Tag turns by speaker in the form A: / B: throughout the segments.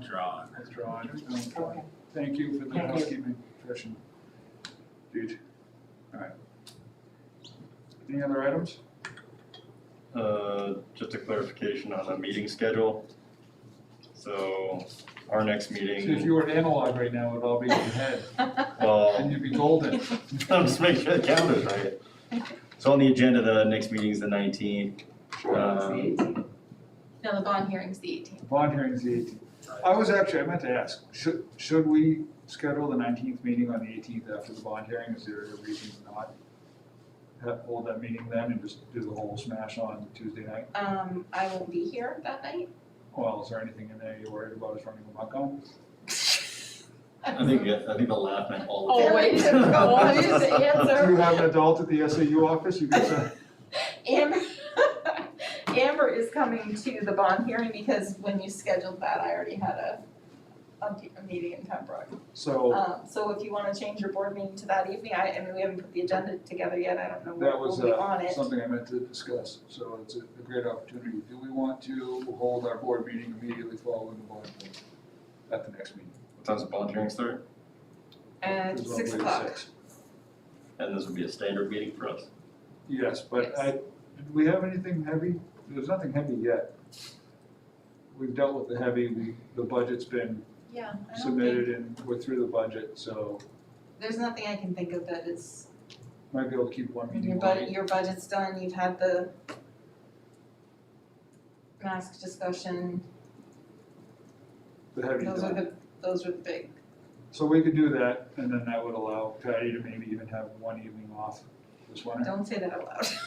A: Withdrawn.
B: Withdraw it.
C: Okay.
B: Thank you for the
C: Thank you.
B: housekeeping profession. Dude. All right. Any other items?
D: Uh, Just a clarification on the meeting schedule. So our next
B: So if
D: meeting,
B: you were an analog right now, it would all be in your head, and
D: well,
B: you'd be golden.
D: I'm just making sure the calendar's right. So on the agenda, the next meeting is the nineteenth. Um,
E: No, the bond hearing's the eighteenth.
B: Bond hearing's the eighteenth. I was actually, I meant to ask, should, should we schedule the nineteenth meeting on the eighteenth after the bond hearing? Is there a reason to not have- hold that meeting then and just do the whole smash on Tuesday night?
E: Um, I won't be here that night.
B: Well, is there anything in there you're worried about us running amok on?
D: I think, I think the laugh meant all of
E: Oh,
D: it.
E: wait, go on, here's
B: Do
E: the
B: you
E: answer.
B: have an adult at the SAU office you can send?
E: Amber, Amber is coming to the bond hearing because when you scheduled that, I already had a, a, a meeting in Pembroke.
B: So
E: Um, so if you wanna change your board meeting to that evening, I, I mean, we haven't put the agenda together yet, I don't know
B: that
E: what will
B: was
E: Um, be on
B: uh,
E: it.
B: something I meant to discuss, so it's a a great opportunity. Do we want to hold our board meeting immediately following the bond hearing at the next meeting?
D: What time's the volunteering start?
E: At
B: It's
E: six
B: on May
E: o'clock.
B: 6th.
D: And this would be a standard meeting for us.
B: Yes, but
E: Yes.
B: I, did we have anything heavy? There's nothing heavy yet. We've dealt with the heavy, we, the budget's been
E: Yeah, I don't think,
B: submitted and we're through the budget, so
E: there's nothing I can think of that is,
B: might be able to keep one
E: your
B: meeting
E: budget,
B: going.
E: your budget's done, you've had the mask discussion,
B: The heavy
E: those are
B: done.
E: the, those are the big,
B: So we could do that and then that would allow Patty to maybe even have one evening off this winter.
E: don't say that out loud.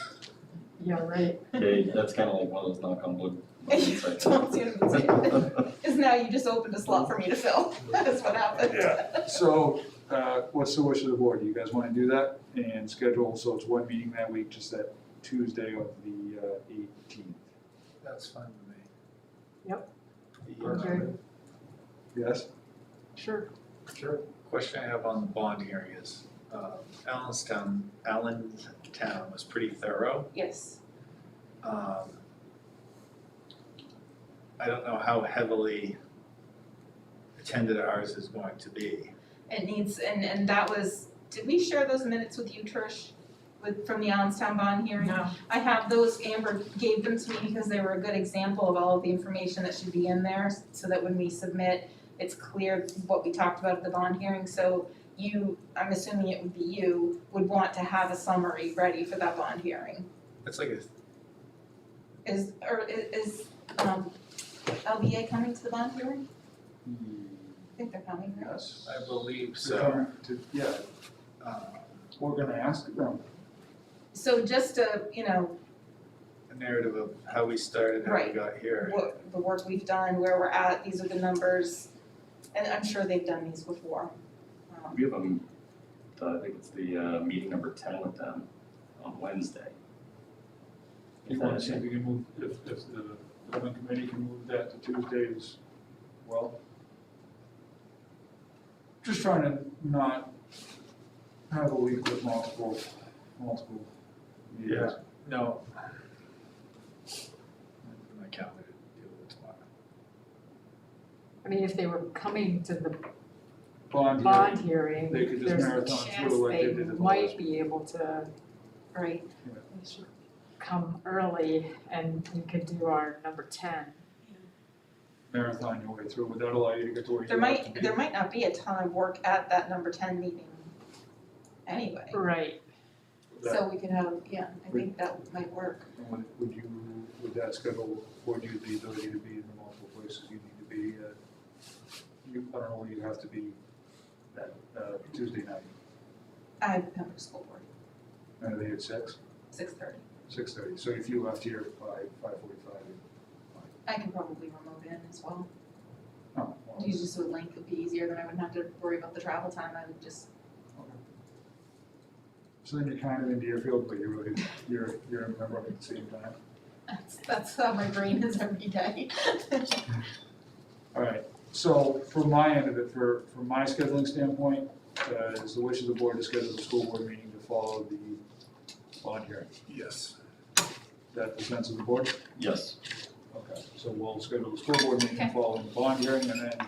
C: Yeah, right.
D: Okay, that's kind of like one of those knock on wood. moments right
E: Don't say it, don't say
D: there.
E: Cause now you just opened a slot for me to fill, that's what happened.
B: Yeah. So, uh, what's the wish of the board? Do you guys wanna do that and schedule, so it's one meeting that week, just that Tuesday of the uh, eighteenth?
F: That's fine with me.
C: Okay,
B: Yes?
C: sure.
F: Sure. Question I have on the bond hearing is, uh, Allenstown, Allentown was pretty thorough.
E: Yes,
F: Um, I don't know how heavily attended ours is going to be.
E: it needs, and, and that was, did we share those minutes with you, Trish? With, from the Allenstown bond hearing?
C: No.
E: I have those, Amber gave them to me because they were a good example of all of the information that should be in there, so that when we submit, it's clear what we talked about at the bond hearing, so you, I'm assuming it would be you, would want to have a summary ready for that bond hearing.
F: It's like a,
E: Is, or i- is, um, LBA coming to the bond hearing? I think they're coming, right?
B: Yes.
F: I believe
B: So,
F: so.
B: to- yeah,
F: Um,
B: we're gonna ask them.
E: So just to, you know,
F: a narrative of how we started, how we
E: Right.
F: got here.
E: what, the work we've done, where we're at, these are the numbers, and I'm sure they've done these before. Um,
D: We have a, I think it's the uh, meeting number ten with them on Wednesday.
B: You wanna see if we can move, if, if the building committee can move that to Tuesdays, well. Just trying to not have a week with multiple, multiple meetings.
F: No. My calendar to deal with tomorrow.
C: I mean, if they were coming to the
B: Bond
C: bond
B: hearing,
C: hearing,
B: they could just
C: there's a
B: marathon
C: chance
B: through like they
C: they
B: did in the last.
C: might be able to
E: Right,
C: come early and we could do our number ten.
B: Marathon your way through, would that allow you to get to where you
E: there
B: have to
E: might,
B: be?
E: there might not be a ton of work at that number ten meeting anyway,
C: Right,
B: That-
E: so we could have, yeah, I think that might work.
B: And Would, would you, would that schedule afford you the ability to be in the multiple places you need to be? uh, You, I don't know, where you have to be that, uh, Tuesday night,
E: I have Pembroke School Board,
B: and they at six,
E: six thirty,
B: six thirty, so if you left here by five forty-five,
E: I can probably remote in as well,
B: oh, well,
E: you just would link, it'd be easier, then I wouldn't have to worry about the travel time, I would just,
B: so then you're kind of in Deerfield, but you're really, you're, you're in Pembroke at the same time.
E: that's, that's how my brain is every day.
B: All right, so from my end of it, for, from my scheduling standpoint, uh, is the wish of the board to schedule the school board meeting to follow the bond hearing.
F: Yes.
B: Is that the sense of the board?
D: Yes.
B: Okay, so we'll schedule the school board meeting
E: Okay.
B: following the bond hearing and then